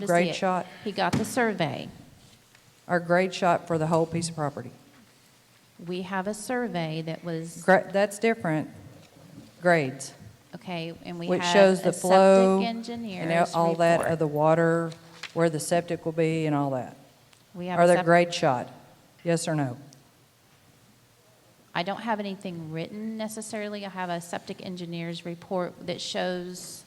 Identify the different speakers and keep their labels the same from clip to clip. Speaker 1: to see
Speaker 2: Grade
Speaker 1: it.
Speaker 2: shot?
Speaker 1: He got the survey.
Speaker 2: Our grade shot for the whole piece of property.
Speaker 1: We have a survey that was,
Speaker 2: Gra- That's different grades,
Speaker 1: okay, and we
Speaker 2: which
Speaker 1: have
Speaker 2: shows
Speaker 1: a
Speaker 2: the flow
Speaker 1: septic
Speaker 2: and
Speaker 1: engineer's
Speaker 2: all that of
Speaker 1: report.
Speaker 2: the water, where the septic will be and all that.
Speaker 1: We have
Speaker 2: Are
Speaker 1: a
Speaker 2: there
Speaker 1: sep-
Speaker 2: grade shot? Yes or no?
Speaker 1: I don't have anything written necessarily. I have a septic engineer's report that shows,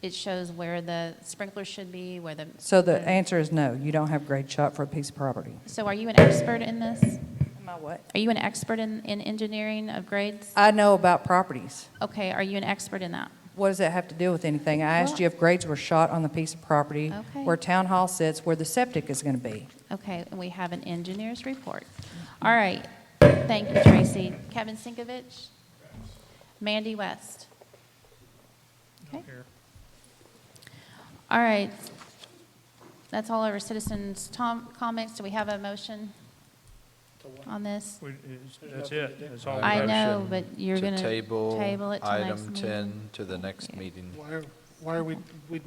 Speaker 1: it shows where the sprinklers should be, where the.
Speaker 2: So the answer is no, you don't have grade shot for a piece of property.
Speaker 1: So are you an expert in this?
Speaker 2: Am I what?
Speaker 1: Are you an expert in, in engineering of grades?
Speaker 2: I know about properties.
Speaker 1: Okay, are you an expert in that?
Speaker 2: What does that have to do with anything? I asked
Speaker 1: Well-
Speaker 2: you if grades were shot on the piece of property
Speaker 1: Okay.
Speaker 2: where town hall sits, where the septic is going to be.
Speaker 1: Okay, and we have an engineer's report. All right, thank you, Tracy. Kevin Sinkovich? Mandy West? Okay. All right, that's all our citizens' tom- comments. Do we have a motion on this?
Speaker 3: We- it's- That's it, that's all. we
Speaker 1: I
Speaker 3: have.
Speaker 1: know, but you're going
Speaker 4: To
Speaker 1: to
Speaker 4: table
Speaker 1: table it till next
Speaker 4: item
Speaker 1: meeting.
Speaker 4: 10 to the next meeting,
Speaker 5: Why, are- why are we, we,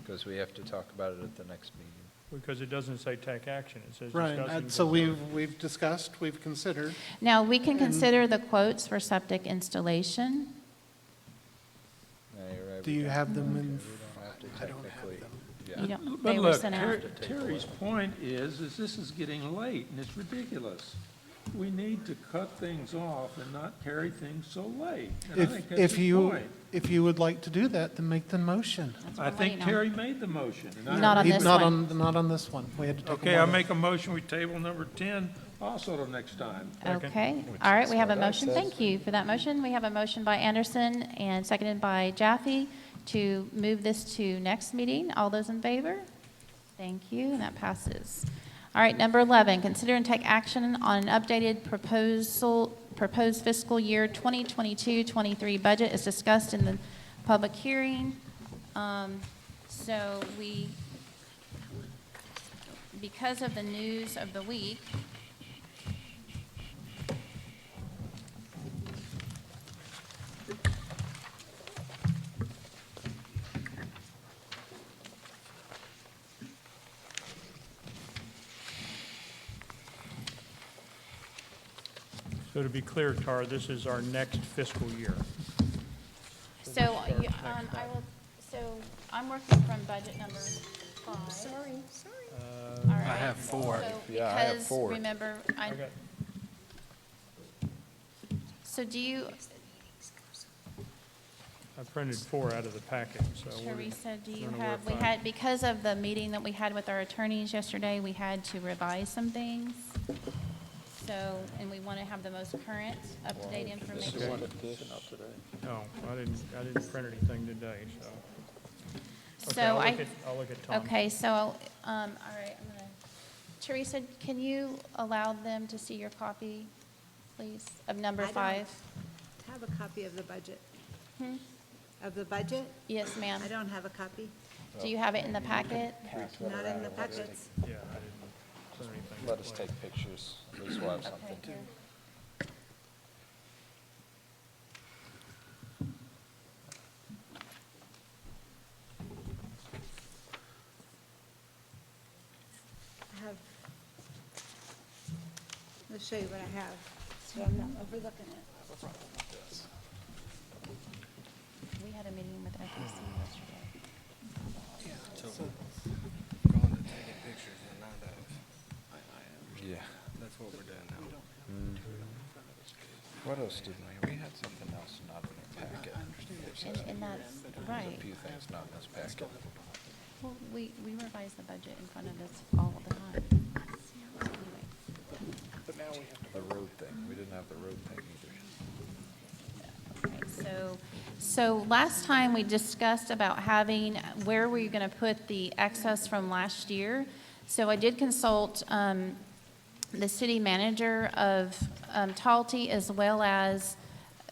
Speaker 4: because we have to talk about it at the next meeting.
Speaker 3: Because it doesn't say take action, it says
Speaker 5: right,
Speaker 3: discussion.
Speaker 5: and so we've, we've discussed, we've considered,
Speaker 1: Now, we can consider the quotes for septic installation.
Speaker 4: Yeah, you're right,
Speaker 5: do
Speaker 4: we
Speaker 5: you
Speaker 4: don't-
Speaker 5: have them in,
Speaker 4: we don't have to
Speaker 5: I don't have
Speaker 4: technically-
Speaker 5: them.
Speaker 4: yeah.
Speaker 1: You don't,
Speaker 6: But
Speaker 1: they were
Speaker 6: look,
Speaker 1: sent out.
Speaker 6: Ter- Terry's point is, is this is getting late, and it's ridiculous. We need to cut things off and not carry things so late. And I think
Speaker 5: if,
Speaker 6: that's
Speaker 5: if
Speaker 6: the
Speaker 5: you,
Speaker 6: point.
Speaker 5: if you would like to do that, then make the motion.
Speaker 1: That's
Speaker 6: I
Speaker 1: what
Speaker 6: think
Speaker 1: I'm waiting
Speaker 6: Terry made the motion. and I-
Speaker 1: Not on
Speaker 5: He-
Speaker 1: this
Speaker 5: Not
Speaker 1: one.
Speaker 5: on, not on this one, we had to take a
Speaker 6: Okay, I
Speaker 5: vote.
Speaker 6: make a motion, we table number 10 also till next time.
Speaker 1: on. Okay, all right, we have a motion. Thank you for that motion. We have a motion by Anderson and seconded by Jaffe to move this to next meeting. All those in favor? Thank you, and that passes. All right, number 11, consider and take action on an updated proposal, proposed fiscal year 2022-23 budget as discussed in the public hearing. Um, So we, because of the news of the week,
Speaker 3: So to be clear, Tara, this is our next fiscal year.
Speaker 1: So, you- um, I will, so I'm working from budget number five. Sorry, sorry. I have four.
Speaker 4: Yeah, I have four.
Speaker 1: Because, remember, I,
Speaker 3: I got-
Speaker 1: so do you,
Speaker 3: I printed four out of the packet, so. we're-
Speaker 1: Teresa, do you
Speaker 3: we're gonna
Speaker 1: have, we
Speaker 3: work on it.
Speaker 1: had, because of the meeting that we had with our attorneys yesterday, we had to revise some things. So, and we want to have the most current, up-to-date information.
Speaker 3: No, Oh, I didn't, I didn't print anything today, so. Okay,
Speaker 1: So
Speaker 3: I'll
Speaker 1: I.
Speaker 3: look at- I'll look at Tom.
Speaker 1: Okay, so, um, all right, I'm gonna, Teresa, can you allow them to see your copy, please, of number
Speaker 7: I don't.
Speaker 1: five?
Speaker 7: Have a copy of the budget. Of the budget?
Speaker 1: Yes, ma'am.
Speaker 7: I don't have a copy,
Speaker 1: Do you have it in the packet?
Speaker 7: not in the packets.
Speaker 3: Yeah, I didn't print anything.
Speaker 4: Let us take pictures, at least we'll have something to.
Speaker 7: I have, let's show you what I have, so I'm not overlooking it.
Speaker 1: We had a meeting with FTC yesterday.
Speaker 4: Yeah. That's what we're doing now. What else did we, we had something else not in the packet. There's a
Speaker 1: And, and that's, right.
Speaker 4: few things not in this packet.
Speaker 1: Well, we, we revise the budget in front of us all the time. Anyway.
Speaker 4: The road thing, we didn't have the road thing either.
Speaker 1: So, so last time we discussed about having, where were you going to put the excess from last year? So I did consult um, the city manager of um, Talte as well as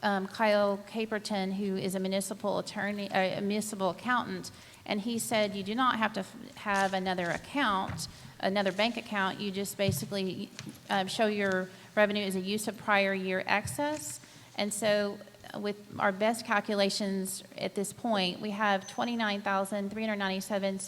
Speaker 1: um, Kyle Caperton, who is a municipal attorney, a municipal accountant, and he said you do not have to f- have another account, another bank account. You just basically uh, show your revenue as a use of prior year excess. And so uh, with our best calculations at this point, we have 29,397